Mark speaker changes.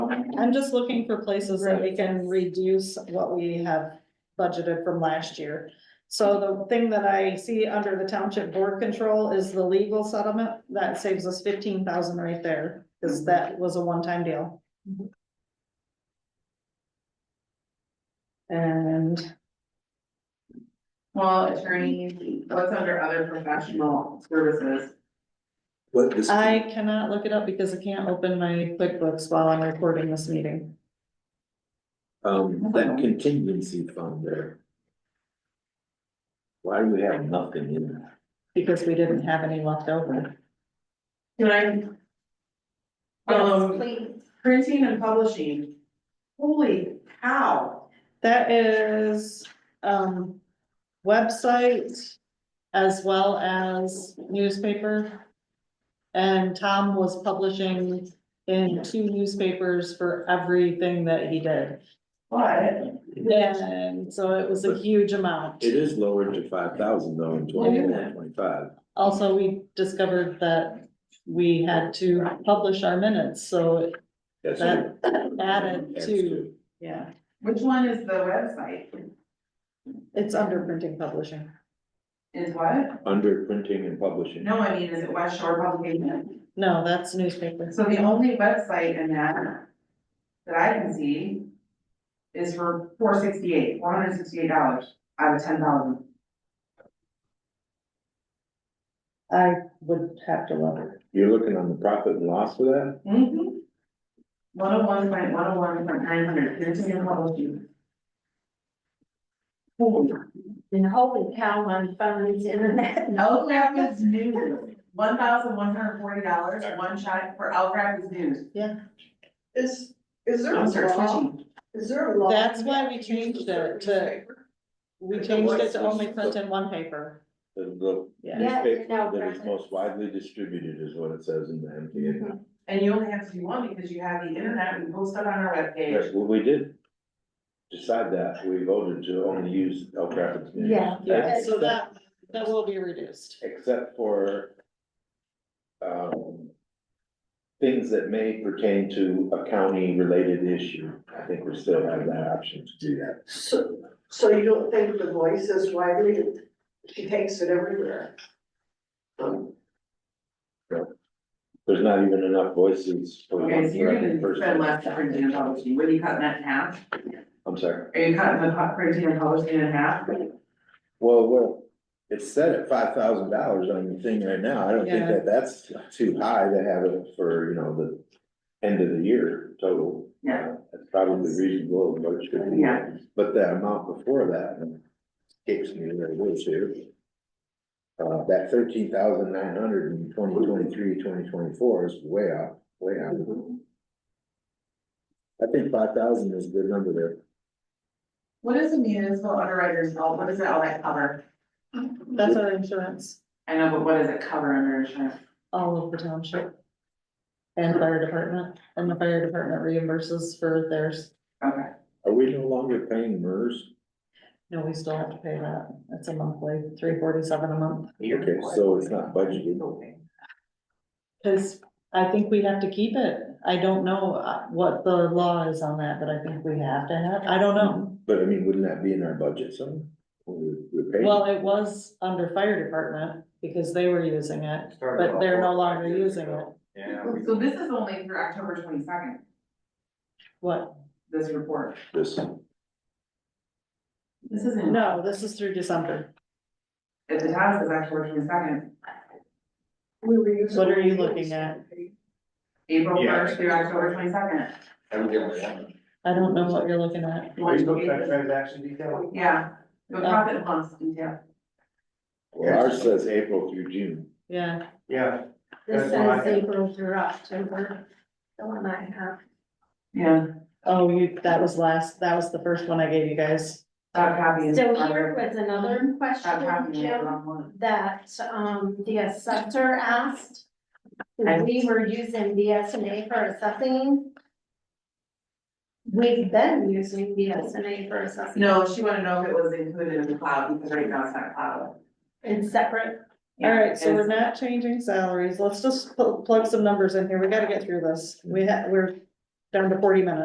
Speaker 1: I'm just looking for places that we can reduce what we have budgeted from last year. So the thing that I see under the township board control is the legal settlement, that saves us fifteen thousand right there, cause that was a one-time deal. And
Speaker 2: Well, attorney, what's under other professional services?
Speaker 3: What this,
Speaker 1: I cannot look it up because I can't open my QuickBooks while I'm recording this meeting.
Speaker 3: um, that contingency fund there. Why do we have nothing in that?
Speaker 1: Because we didn't have any left over.
Speaker 2: Can I? Um, printing and publishing. Holy cow.
Speaker 1: That is, um, website as well as newspaper. And Tom was publishing in two newspapers for everything that he did.
Speaker 2: What?
Speaker 1: And so it was a huge amount.
Speaker 3: It is lowered to five thousand though in twenty-four, twenty-five.
Speaker 1: Also, we discovered that we had to publish our minutes, so
Speaker 3: That's
Speaker 1: that added
Speaker 3: That's
Speaker 1: to,
Speaker 3: two.
Speaker 1: yeah.
Speaker 2: Which one is the website?
Speaker 1: It's under printing publishing.
Speaker 2: Is what?
Speaker 3: Under printing and publishing.
Speaker 2: No, I mean, is it West Shore Publication?
Speaker 1: No, that's newspapers.
Speaker 2: So the only website in that that I can see is for four sixty-eight, four hundred sixty-eight dollars out of ten thousand.
Speaker 1: I would have to look.
Speaker 3: You're looking on the profit and loss for that?
Speaker 2: Mm-hmm. One oh one point one oh one point nine hundred, printing and publishing. Holy
Speaker 4: And holy cow, my phone's internet.
Speaker 2: Algraph is new, one thousand one hundred forty dollars, one shot for Algraph is new.
Speaker 5: Is, is there a
Speaker 2: I'm search
Speaker 5: law,
Speaker 2: machine.
Speaker 5: is there a law?
Speaker 1: That's why we changed it to- We changed it to only print in one paper,
Speaker 3: The the
Speaker 1: yeah.
Speaker 4: Yeah,
Speaker 3: newspaper
Speaker 4: no,
Speaker 3: that is
Speaker 4: profit.
Speaker 3: most widely distributed is what it says in the
Speaker 1: Mm-hmm.
Speaker 3: MTA.
Speaker 2: And you only have to do one because you have the internet, we post it on our webpage.
Speaker 3: That's what we did. Decide that, we voted to only use El Capitan.
Speaker 4: Yeah.
Speaker 1: Yeah, so that, that will be reduced.
Speaker 3: except for um, things that may pertain to a county-related issue. I think we still have that option to do that.
Speaker 5: So, so you don't think the voice is widely, she takes it everywhere? Um,
Speaker 3: There's not even enough voices for
Speaker 2: Okay, so
Speaker 3: one
Speaker 2: you're
Speaker 3: elected
Speaker 2: gonna spend less on printing and
Speaker 3: person.
Speaker 2: publishing, what are you cutting that in half?
Speaker 3: I'm sorry.
Speaker 2: Are you cutting the pu- printing and publishing in half?
Speaker 3: Well, well, it's set at five thousand dollars on the thing right now. I don't think
Speaker 1: Yeah.
Speaker 3: that that's too high to have it for, you know, the end of the year total.
Speaker 2: Yeah.
Speaker 3: That's probably reasonable, but it should be.
Speaker 2: Yeah.
Speaker 3: But that amount before that, escapes me where it was here. Uh, that thirteen thousand nine hundred in twenty twenty-three, twenty twenty-four is way off, way off. I think five thousand is a good number there.
Speaker 2: What is the municipal underwriter's fault, what does it all that cover?
Speaker 1: That's our insurance,
Speaker 2: I know, but what does it cover under insurance?
Speaker 1: all of the township. And fire department, and the fire department reimburses for theirs.
Speaker 2: Okay,
Speaker 3: Are we no longer paying MERS?
Speaker 1: No, we still have to pay that. It's a monthly, three forty-seven a month.
Speaker 3: Okay, so it's not budgeted.
Speaker 1: Cause I think we have to keep it. I don't know uh, what the law is on that, but I think we have to have, I don't know.
Speaker 3: But I mean, wouldn't that be in our budget somewhere? We're, we're paying.
Speaker 1: Well, it was under fire department because they were using it, but they're no longer using it.
Speaker 6: Yeah.
Speaker 2: so this is only through October twenty-second,
Speaker 1: What?
Speaker 2: this report.
Speaker 3: This,
Speaker 2: This isn't.
Speaker 1: No, this is through December.
Speaker 2: If the task is October twenty-second,
Speaker 5: We were using.
Speaker 1: What are you looking at?
Speaker 2: April
Speaker 6: Yeah.
Speaker 2: first through October twenty-second.
Speaker 1: I don't know what you're looking at.
Speaker 6: Well, you look at transaction detail.
Speaker 2: Yeah, the profit plus detail.
Speaker 3: well, ours says April through June.
Speaker 1: Yeah,
Speaker 6: Yeah,
Speaker 4: This
Speaker 6: That's why I
Speaker 4: says
Speaker 6: have-
Speaker 4: April through October, the one I have.
Speaker 2: Yeah,
Speaker 1: oh, you, that was last, that was the first one I gave you guys.
Speaker 2: that copy is.
Speaker 4: So here was another
Speaker 2: That
Speaker 4: question,
Speaker 2: copy is
Speaker 4: Jim,
Speaker 2: on one.
Speaker 4: that, um, the assessor asked.
Speaker 2: I-
Speaker 4: We were using the S and A for assessing. We've been using the S and A for assessing.
Speaker 2: No, she wanted to know if it was included in the cloud, because right now it's not cloud.
Speaker 4: It's separate,
Speaker 1: All right, so we're
Speaker 2: It's-
Speaker 1: not changing salaries. Let's just pl- plug some numbers in here. We gotta get through this. We ha- we're down to forty minutes.